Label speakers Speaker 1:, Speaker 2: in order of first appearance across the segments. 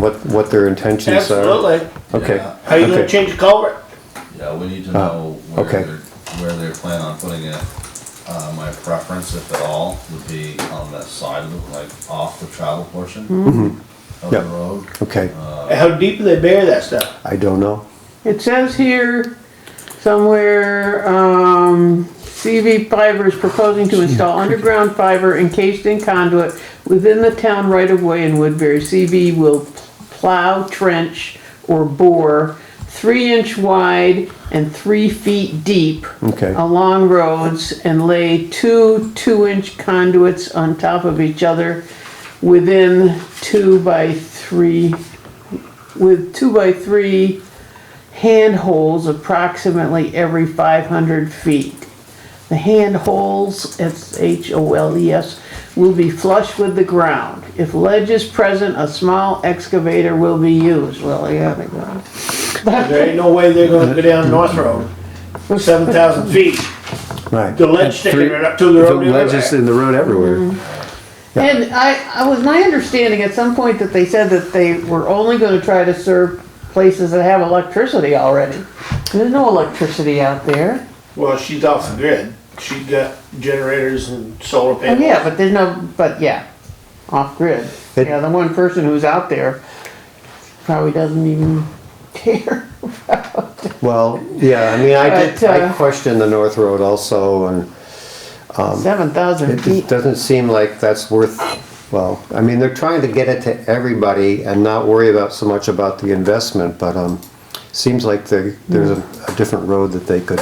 Speaker 1: what, what their intentions are?
Speaker 2: Absolutely.
Speaker 1: Okay,
Speaker 3: Yeah.
Speaker 2: How you gonna
Speaker 1: okay,
Speaker 2: change the culvert?
Speaker 3: Yeah, we need to
Speaker 4: Uh,
Speaker 3: know
Speaker 1: Ah,
Speaker 3: where
Speaker 1: okay.
Speaker 3: they're, where they plan on putting it. Uh, my preference, if at all, would be on the side of the, like, off the travel portion
Speaker 4: Mm-hmm.
Speaker 3: of the
Speaker 1: Yep.
Speaker 3: road.
Speaker 1: okay.
Speaker 2: How deep do they bury that stuff?
Speaker 1: I don't know.
Speaker 5: It says here somewhere, um, CV Fiber is proposing to install underground fiber encased in conduit within the town right of way in Woodbury. CV will plow, trench, or bore three inch wide and three feet deep
Speaker 1: Okay.
Speaker 5: along roads and lay two two inch conduits on top of each other within two by three, with two by three handholds approximately every 500 feet. The handholds, it's H-O-L-E-S, E will be flush with the ground. If ledge is present, a small excavator will be used. Well, yeah, they go.
Speaker 2: There ain't no way they're gonna go down North Road, seven thousand feet,
Speaker 1: Right.
Speaker 2: the ledge sticking right up to the
Speaker 1: The
Speaker 2: road. the Mm-hmm. other
Speaker 1: ledge is
Speaker 2: way.
Speaker 1: in the road everywhere.
Speaker 5: And I, I was my understanding at some point that they said that they were only gonna try to serve places that have electricity already. There's no electricity out there.
Speaker 2: Well, she's off the grid, she got generators and solar
Speaker 5: Oh,
Speaker 2: panels.
Speaker 5: yeah, but there's no, but yeah, off grid.
Speaker 1: It-
Speaker 5: Yeah, the one person who's out there probably doesn't even care.
Speaker 1: Well, yeah, I mean, I did,
Speaker 5: But,
Speaker 1: I
Speaker 5: uh,
Speaker 1: questioned the North Road also and
Speaker 5: Seven thousand
Speaker 1: Um, It
Speaker 5: feet.
Speaker 1: just doesn't seem like that's worth, well, I mean, they're trying to get it to everybody and not worry about so much about the investment, but, um, seems like there, there's a,
Speaker 5: Mm.
Speaker 1: a different road that they could,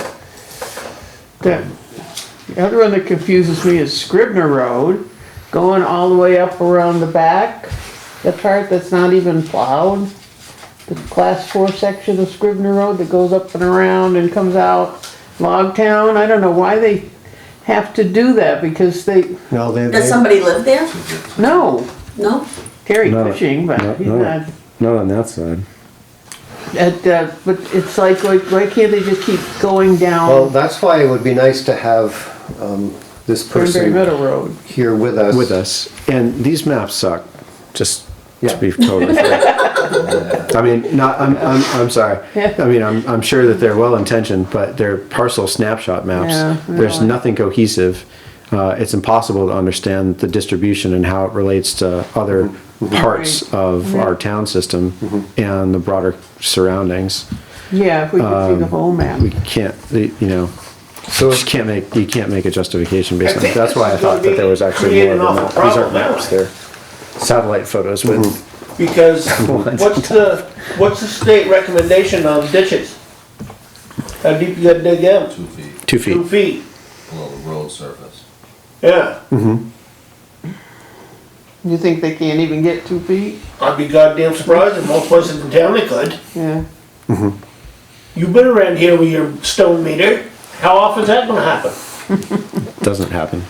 Speaker 5: The the other one that confuses me is Scribner Road, going all the way up around the back, the part that's not even plowed. The class four section of Scribner Road that goes up and around and comes out Log Town. I don't know why they have to do that because they,
Speaker 1: no, they,
Speaker 6: Does
Speaker 1: they-
Speaker 6: somebody live there?
Speaker 5: no,
Speaker 6: No?
Speaker 5: Terry
Speaker 4: No,
Speaker 5: Cushing, but
Speaker 4: no,
Speaker 5: he's
Speaker 4: no.
Speaker 5: not.
Speaker 4: Not on that side.
Speaker 5: At, uh, but it's like, why, why can't they just keep going
Speaker 1: well,
Speaker 5: down
Speaker 1: that's why it would be nice to have, um, this
Speaker 5: Cranberry
Speaker 1: person
Speaker 5: Meadow Road?
Speaker 1: here with us.
Speaker 4: With us. And these maps suck, just
Speaker 1: Yeah.
Speaker 4: to be totally fair. I mean, not, I'm, I'm, I'm sorry. I mean, I'm, I'm sure that they're well intentioned, but they're parcel snapshot
Speaker 5: Yeah,
Speaker 4: maps. There's
Speaker 5: really.
Speaker 4: nothing cohesive. Uh, it's impossible to understand the distribution and how it relates to other parts of our town system and the broader surroundings.
Speaker 5: Yeah, if we could see the whole map.
Speaker 4: Um, We can't, you know,
Speaker 1: So,
Speaker 4: just can't make, you can't make a justification based
Speaker 2: I
Speaker 4: on,
Speaker 2: think
Speaker 4: that. that's why I
Speaker 2: this is
Speaker 4: thought
Speaker 2: gonna
Speaker 4: that there was
Speaker 2: be-
Speaker 4: actually
Speaker 2: create
Speaker 4: more
Speaker 2: an
Speaker 4: than
Speaker 2: awful
Speaker 4: that. These aren't
Speaker 2: problem, Mm-hmm.
Speaker 4: maps,
Speaker 2: don't
Speaker 4: they're satellite photos with,
Speaker 2: Because what's the, what's the state recommendation on ditches? How deep you gotta dig them?
Speaker 3: Two feet
Speaker 4: two
Speaker 2: Two
Speaker 4: feet.
Speaker 2: feet,
Speaker 3: below the road surface.
Speaker 2: yeah,
Speaker 5: You think they can't even get two feet?
Speaker 2: I'd be goddamn surprised if most places in town they could.
Speaker 5: Yeah.
Speaker 2: You've been around here with your stone meter. How often is that gonna happen?
Speaker 4: Doesn't happen.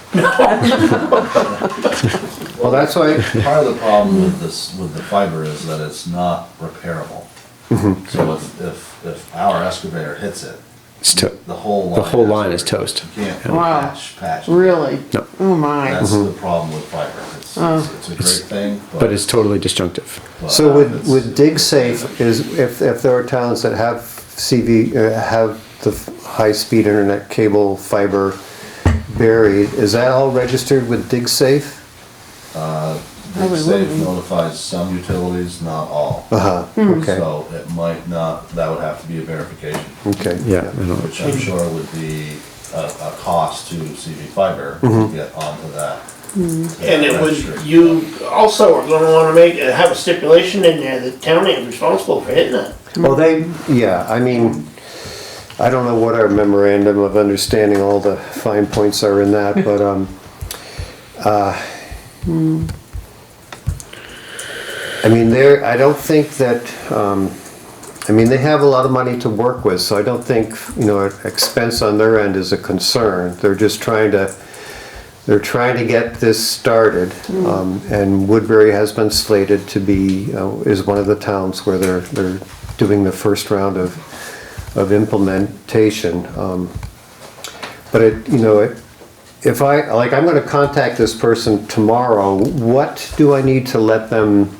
Speaker 1: well, that's why,
Speaker 3: Part of the problem with this, with the fiber is that it's not repairable.
Speaker 4: Mm-hmm.
Speaker 3: So if, if, if our excavator hits it,
Speaker 4: It's to,
Speaker 3: the whole line.
Speaker 4: the whole line is
Speaker 3: to-
Speaker 4: toast.
Speaker 3: You can't
Speaker 5: Wow.
Speaker 3: patch, patch.
Speaker 5: Really?
Speaker 4: No.
Speaker 5: Oh my.
Speaker 3: That's the problem with fiber. It's, it's it's a great thing, but.
Speaker 4: But it's totally disjunctive.
Speaker 3: but
Speaker 1: so with,
Speaker 3: it's-
Speaker 1: with DigSafe is, if, if there are towns that have CV, uh, have the high-speed internet cable fiber buried, is that all registered with DigSafe?
Speaker 5: I would
Speaker 3: Safe
Speaker 5: wouldn't.
Speaker 3: notifies some utilities, not all.
Speaker 1: Uh-huh, okay,
Speaker 3: So it might not, that would have to be a verification,
Speaker 1: okay.
Speaker 4: Yeah, I don't,
Speaker 3: which I'm sure would be a, a cost to CV Fiber to
Speaker 1: Mm-hmm.
Speaker 3: get onto that.
Speaker 2: And it
Speaker 3: registry.
Speaker 2: would, you also are gonna wanna make, uh, have a stipulation in there that town ain't responsible for hitting that.
Speaker 1: Well, they, yeah, I mean, I don't know what our memorandum of understanding, all the fine points are in that, but, um, uh, I mean, there, I don't think that, um, I mean, they have a lot of money to work with, so I don't think, you know, expense on their end is a concern. They're just trying to, they're trying to get this started, um, and Woodbury has been slated to be, uh, is one of the towns where they're, they're doing the first round of, of implementation. Um, But it, you know, it- if I, like, I'm gonna contact this person tomorrow, what do I need to let them